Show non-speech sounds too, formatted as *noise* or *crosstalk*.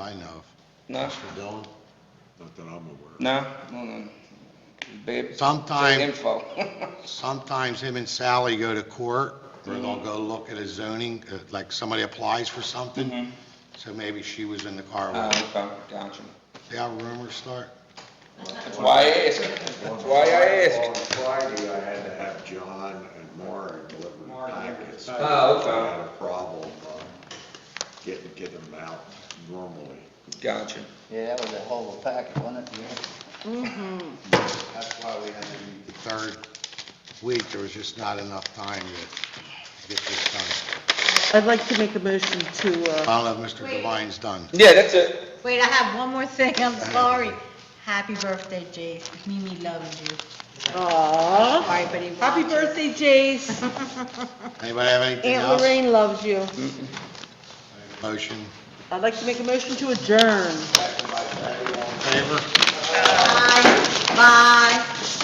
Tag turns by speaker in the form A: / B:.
A: I know of.
B: No,
A: Mr. Dillon?
C: Not that I'm aware of.
B: no, no, no. Babe, big
A: Sometimes,
B: *laughs* info.
A: sometimes him and Sally go to court, or they'll go look at a zoning, uh, like somebody applies for something, so maybe she was in the car
B: Oh,
A: with him.
B: okay, gotcha.
A: See how rumors start?
B: That's why I ask, that's why I ask.
C: On Friday, I had to have John and Mara deliver packets.
B: Oh, okay.
C: I had a problem uh, getting, getting them out normally.
B: Gotcha.
D: Yeah, that was a whole packet, wasn't it?
E: Mm-hmm.
A: That's why we had to meet the third week, there was just not enough time to get this done.
E: I'd like to make a motion to, uh,
A: I don't know if Mr. Devine's done.
B: Yeah, that's it.
F: Wait, I
E: Oh,
F: have one more thing, I'm sorry. Happy birthday, Jace, Mimi loves you.
E: aw,
F: Sorry, but he
E: happy
F: watches.
E: birthday, Jace,
A: Anybody have anything
E: *laughs* Aunt
A: else?
E: Lorraine loves you.
A: Motion,
E: I'd like to make a motion to adjourn.
A: in favor?
F: Bye, *laughs* bye.